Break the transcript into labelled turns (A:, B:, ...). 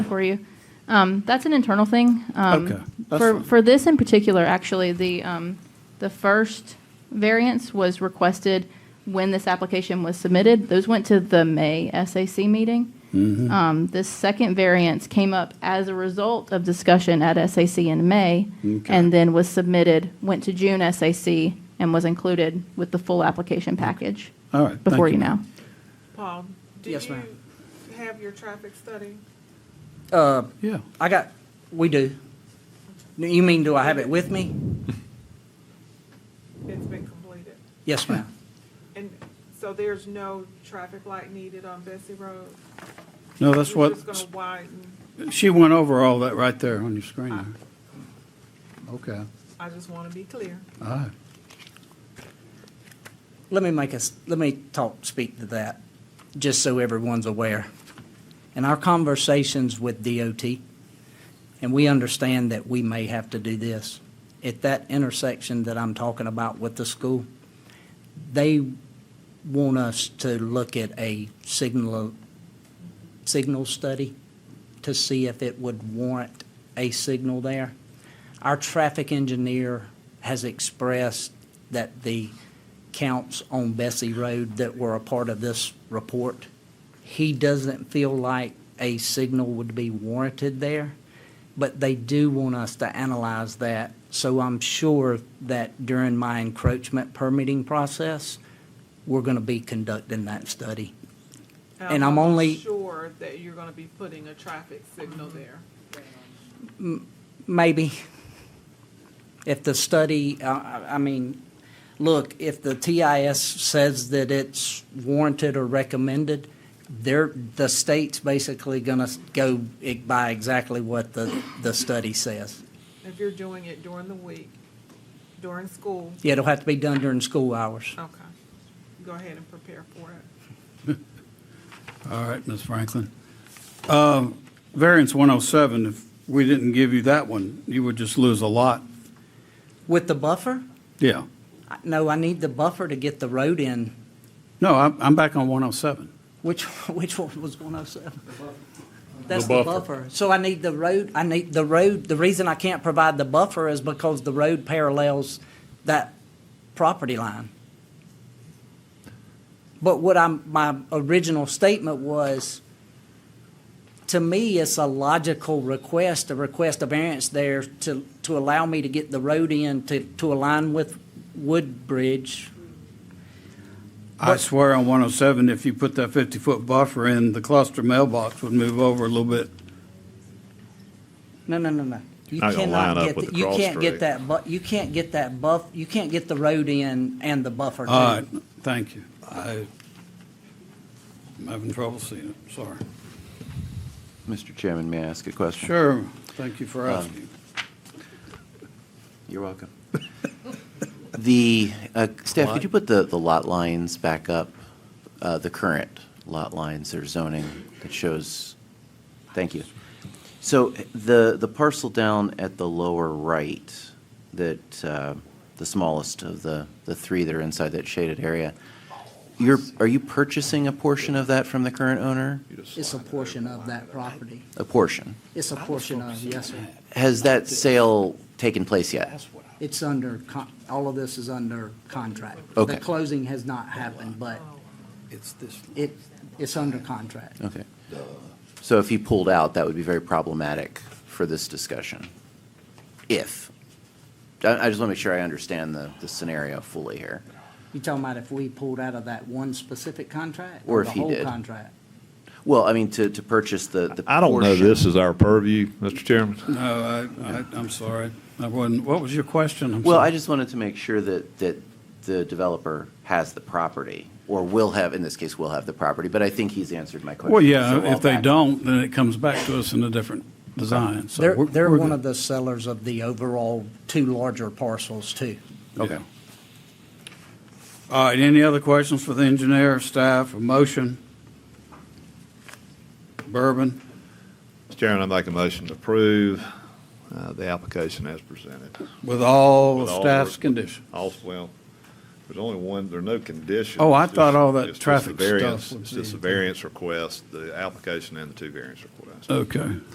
A: for you. Um, that's an internal thing. Um,
B: Okay, that's
A: For,
B: fine.
A: for this in particular, actually, the, um, the first variance was requested when this application was submitted. Those went to the May SAC meeting.
B: Mm-hmm.
A: Um, this second variance came up as a result of discussion at SAC in May.
B: Okay.
A: And then was submitted, went to June SAC and was included with the full application package.
B: All right, Mm-hmm. thank
A: Before
B: you,
A: you
B: ma'am.
A: now.
C: Paul, do
D: Yes,
C: you
D: ma'am.
C: have your traffic study?
D: Uh,
B: Yeah,
D: I got, we do. You mean, do I have it with me?
C: It's been completed.
D: Yes, ma'am.
C: And so there's no traffic light needed on Bessie Road?
B: no, that's
C: You're
B: what,
C: just gonna widen,
B: she went over all that right there on your screen. there. Okay, ah,
C: I just wanna be clear.
B: all right.
D: Let me make us, let me talk, speak to that, just so everyone's aware. In our conversations with DOT, and we understand that we may have to do this, at that intersection that I'm talking about with the school, they want us to look at a signal, signal study to see if it would warrant a signal there. Our traffic engineer has expressed that the counts on Bessie Road that were a part of this report, he doesn't feel like a signal would be warranted there, but they do want us to analyze that. So I'm sure that during my encroachment permitting process, we're going to be conducting that study. And I'm only-
C: Sure that you're gonna be putting a traffic signal there.
D: Maybe. If the study, I- I I mean, look, if the TIS says that it's warranted or recommended, they're, the state's basically going to go e- by exactly what the, the study says.
C: If you're doing it during the week, during school,
D: Yeah, It'll have to be done during school hours.
C: okay. Go ahead and prepare for it.
B: All right, Ms. Franklin. Um, Variance 107, if we didn't give you that one, you would just lose a lot.
D: With the buffer?
B: Yeah.
D: I- No, I need the buffer to get the road in,
B: No, I'm, I'm back on 107.
D: which, which one was 107? That's
E: The
D: the
E: buffer.
D: buffer. So I need the road, I need the road, the reason I can't provide the buffer is because the road parallels that property line. But what I'm, my original statement was, to me, it's a logical request, to request a variance there to, to allow me to get the road in to, to align with Woodbridge.
B: I swear on 107, if you put that 50-foot buffer in, the cluster mailbox would move over a little bit.
D: No, no, no, no. You
E: Not gonna
D: cannot
E: line up
D: get
E: with
D: the-
E: the
D: You
E: cross
D: can't
E: street.
D: get that bu, you can't get that buff, you can't get the road in and the buffer too.
B: All right, thank you. I- I'm having trouble seeing it, sorry.
F: Mr. Chairman, may I ask a question?
B: Sure, thank you for asking.
F: You're welcome. The, uh, staff, could you put the, the lot lines back up? Uh, The current lot lines or zoning that shows, thank you. So the, the parcel down at the lower right, that, uh, the smallest of the, the three that are inside that shaded area, you're, are you purchasing a portion of that from the current owner?
D: It's a portion of that property.
F: A portion?
D: It's a portion of, yes, sir.
F: Has that sale taken place yet?
D: It's under, con- all of this is under contract.
F: Okay.
D: The closing has not happened, but
B: It's this.
D: it, it's under contract.
F: Okay. So if he pulled out, that would be very problematic for this discussion. If. I, I just want to make sure I understand the, the scenario fully here.
D: You talking about if we pulled out of that one specific contract?
F: Or if he
D: The
F: did.
D: whole contract?
F: Well, I mean, to, to purchase the, the.
E: I don't know
F: portion-
E: this is our purview, Mr. Chairman.
B: No, I, I, I'm sorry. I wasn't, what was your question? I'm
F: Well,
B: sorry.
F: I just wanted to make sure that, that the developer has the property, or will have, in this case, will have the property, but I think he's answered my question.
B: Well,
F: So
B: yeah,
F: I'll
B: if they
F: back-
B: don't, then it comes back to us in a different design, so.
D: They're,
B: we're-
D: they're
B: we're
D: one
B: good.
D: of the sellers of the overall two larger parcels too.
F: Okay.
B: All right, any other questions for the engineer, staff, or motion? Bourbon,
E: Mr. Chairman, I'd like a motion to approve uh, the application as presented.
B: with all
E: With
B: the
E: all
B: staff's
E: the-
B: conditions.
E: Also, well, there's only one, there are no conditions.
B: Oh, I
E: It's
B: thought
E: just-
B: all that
E: it's just a
B: traffic stuff
E: variance.
B: would
E: It's just a
B: be- Oh,
E: variance request, the application and the two variance requests.
B: Okay.